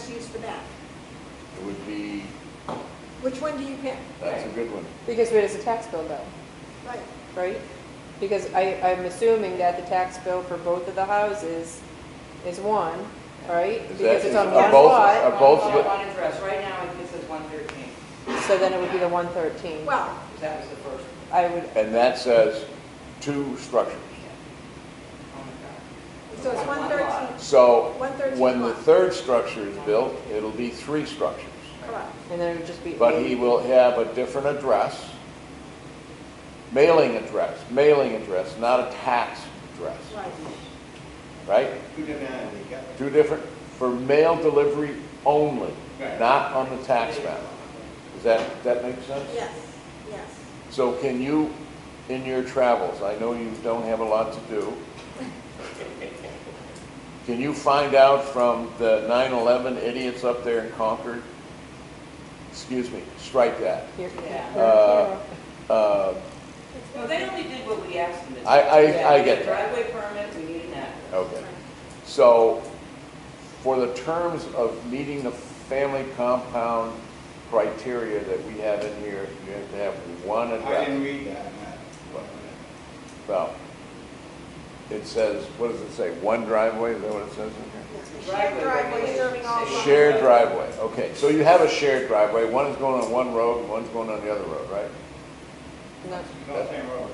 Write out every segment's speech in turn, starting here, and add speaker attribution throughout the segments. Speaker 1: for that?
Speaker 2: It would be,
Speaker 1: Which one do you pick?
Speaker 2: that's a good one.
Speaker 3: Because where does the tax bill go,
Speaker 1: Right,
Speaker 3: right? Because I, I'm assuming that the tax bill for both of the houses is one, right?
Speaker 2: Is
Speaker 3: Because
Speaker 2: that-
Speaker 3: it's on
Speaker 2: is-
Speaker 3: one
Speaker 2: are both-
Speaker 3: lot,
Speaker 2: are both
Speaker 4: One-
Speaker 2: with-
Speaker 4: One address, right now, I think it says one thirteen,
Speaker 3: so then it would be the one thirteen.
Speaker 1: well,
Speaker 4: that was the first
Speaker 3: I would,
Speaker 2: And that says two structures.
Speaker 4: on the
Speaker 1: so it's
Speaker 4: One
Speaker 1: one
Speaker 4: lot.
Speaker 1: thirteen,
Speaker 2: So
Speaker 1: One thirteen
Speaker 2: when the
Speaker 1: lot.
Speaker 2: third structure is built, it'll be three structures.
Speaker 1: correct.
Speaker 3: and then it would just be.
Speaker 2: But he will have a different address, mailing address, mailing address, not a tax address,
Speaker 1: Right.
Speaker 2: right?
Speaker 5: Two to nine, they got
Speaker 2: Two different, for mail delivery only,
Speaker 5: Right.
Speaker 2: not on the tax map. Does that, that make sense?
Speaker 1: Yes, yes.
Speaker 2: So can you, in your travels, I know you don't have a lot to do, can you find out from the 9/11 idiots up there in Concord? Excuse me, strike that.
Speaker 3: Here-
Speaker 4: Yeah.
Speaker 3: here-
Speaker 2: Uh, Uh,
Speaker 4: back. No, they only did what we asked them to do.
Speaker 2: I- I-
Speaker 4: Yeah,
Speaker 2: I
Speaker 4: we
Speaker 2: get
Speaker 4: need a
Speaker 2: that.
Speaker 4: Driveway permit, we need an address.
Speaker 2: Okay. So for the terms of meeting the family compound criteria that we have in here, you have to have one
Speaker 5: it.
Speaker 2: address.
Speaker 5: I didn't read that, Matt.
Speaker 2: Well, it says, what does it say, one driveway, is that what it says in
Speaker 1: Yes. Shared driveway serving all.
Speaker 2: here?
Speaker 1: lots.
Speaker 2: Shared driveway, okay, so you have a shared driveway, one is going on one road and one's going on the other road, right?
Speaker 3: no,
Speaker 5: No, same road,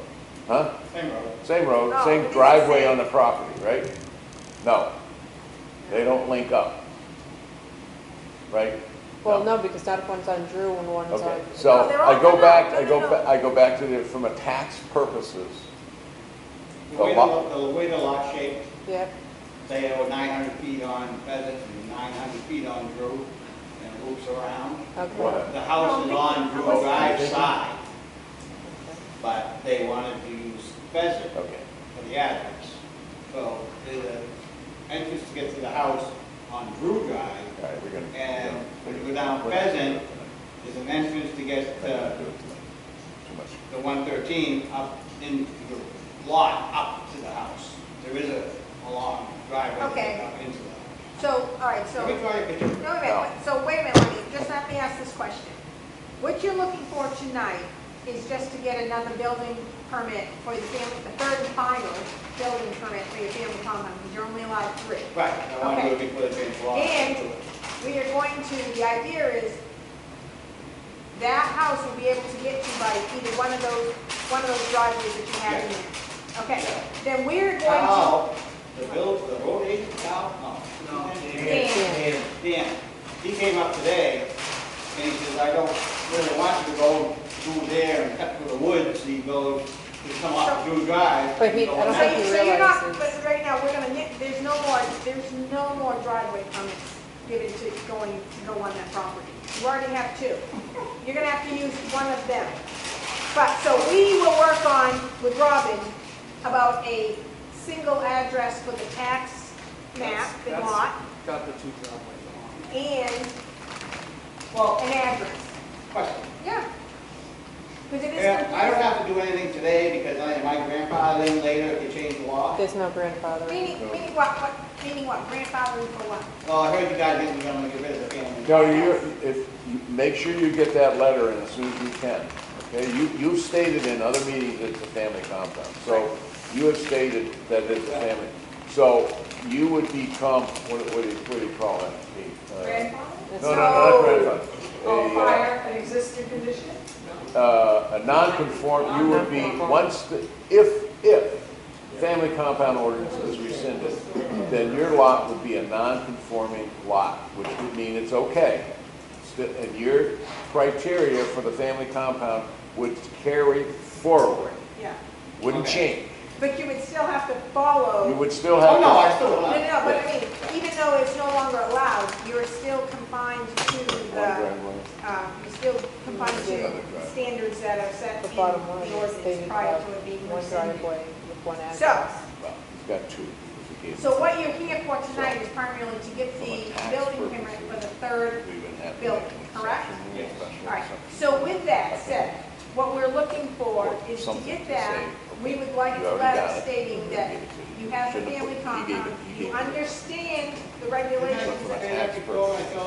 Speaker 2: Huh?
Speaker 5: same road.
Speaker 2: Same road,
Speaker 1: No,
Speaker 2: same
Speaker 1: it's the
Speaker 2: driveway
Speaker 1: same.
Speaker 2: on the property, right? No, they don't link up, right?
Speaker 3: Well, no, because not if one's on Drew and one's
Speaker 2: Okay,
Speaker 3: on.
Speaker 2: so
Speaker 1: No, they're all
Speaker 2: I go
Speaker 1: gonna-
Speaker 2: back,
Speaker 1: no,
Speaker 2: I
Speaker 1: no,
Speaker 2: go,
Speaker 1: no.
Speaker 2: ba- I go back to the, from a tax purposes,
Speaker 5: The
Speaker 2: The
Speaker 5: way the,
Speaker 2: lot-
Speaker 5: lo- the way the lot shaped,
Speaker 3: Yeah,
Speaker 5: they owe nine hundred feet on Pheasant and nine hundred feet on Drew, and it loops around.
Speaker 3: okay.
Speaker 2: whatever.
Speaker 5: The house is on Drew
Speaker 1: Oh,
Speaker 5: Drive's side, but they wanted to use Pheasant
Speaker 2: Okay,
Speaker 5: for the address. So the entrance to get to the house on Drew Drive
Speaker 2: all right, we're gonna.
Speaker 5: And when you go down uh, Pheasant, there's an entrance to get to
Speaker 2: Too much.
Speaker 5: the 113 up into the lot, up to the house. There is a, a long driveway
Speaker 1: Okay.
Speaker 5: up into the house.
Speaker 1: So, all right, so,
Speaker 5: Let me
Speaker 1: no,
Speaker 5: try a picture.
Speaker 1: wait a minute, so wait a minute, let me, just let me ask this question. What you're looking for tonight is just to get another building permit for the family, the third and final building permit for your family compound, because you're only allowed three.
Speaker 5: Right, I want to do it before the change law.
Speaker 1: And- We are going to, the idea is, that house will be able to get to by either one of those, one of those driveways that you have in there. Okay, then we're going to,
Speaker 5: Now, the bill, the road agent, now, no.
Speaker 1: Dan.
Speaker 5: Dan, he came up today, and he says, I don't really want you to go through there and cut through the woods, he goes, to come up Drew Drive.
Speaker 3: But he-
Speaker 5: and go
Speaker 3: I don't
Speaker 5: on
Speaker 1: so
Speaker 3: think
Speaker 5: that."
Speaker 1: you-
Speaker 3: he
Speaker 1: so you're not,
Speaker 3: realizes-
Speaker 1: but right now, we're gonna, nip- there's no more, there's no more driveway permits given to going, to go on that property. You already have two. You're gonna have to use one of them. But, so we will work on with Robin about a single address for the tax map
Speaker 6: That's-
Speaker 1: and
Speaker 6: that's
Speaker 1: lot
Speaker 6: Got the two driveways
Speaker 1: and
Speaker 5: Well,
Speaker 1: an address.
Speaker 5: question.
Speaker 1: Yeah. Because it is
Speaker 5: Yeah, I don't
Speaker 1: confusing.
Speaker 5: have to do anything today because I, my grandpa lived later if you change the law.
Speaker 3: There's no grandfather.
Speaker 1: Meaning, meaning what, what, meaning what, grandfathering for what?
Speaker 5: Well, Oh, I heard you guys didn't want to get rid of the family.
Speaker 2: No, you, if, you- make sure you get that letter in as soon as you can, okay? You, you've stated in other meetings it's a family compound, so you have stated that it's a family. So you would become, what, what do you, what do you call that? The, uh,
Speaker 1: Grandfather?
Speaker 2: No, no, not grandfather.
Speaker 4: Oh,
Speaker 2: A, uh,
Speaker 4: fire, an existing condition?
Speaker 2: uh, a non-conform, you would be, once, the if, if family compound ordinance is rescinded, then your lot would be a non-conforming lot, which would mean it's okay. Sti- And your criteria for the family compound would carry forward,
Speaker 1: Yeah.
Speaker 2: wouldn't
Speaker 5: Okay.
Speaker 2: change.
Speaker 1: But you would still have to
Speaker 2: You
Speaker 1: follow,
Speaker 2: would still
Speaker 5: Oh,
Speaker 2: have
Speaker 5: no, I
Speaker 2: to,
Speaker 5: still
Speaker 1: no, no,
Speaker 5: don't. know.
Speaker 1: no, but I mean, even though it's no longer allowed, you're still confined to the, um, you're still confined to standards that are set
Speaker 3: The
Speaker 1: in
Speaker 3: bottom line
Speaker 1: the
Speaker 3: is they
Speaker 1: ordinance
Speaker 3: have
Speaker 1: prior to it being
Speaker 3: one
Speaker 1: rescinded.
Speaker 3: driveway with one
Speaker 1: So,
Speaker 3: address.
Speaker 2: well, you've got two. if you gave-
Speaker 1: so what you're here for tonight is primarily to get the building permit for the third
Speaker 2: we would have to
Speaker 1: building,
Speaker 2: make an
Speaker 1: correct?
Speaker 2: exception, make a
Speaker 1: All
Speaker 2: special
Speaker 1: right,
Speaker 2: exception.
Speaker 1: so with that said, what we're looking for is to get that, we would like a letter stating that you have a family compound, you understand the regulations
Speaker 2: Look for a
Speaker 5: They have
Speaker 2: tax
Speaker 5: to
Speaker 2: person.
Speaker 5: go and go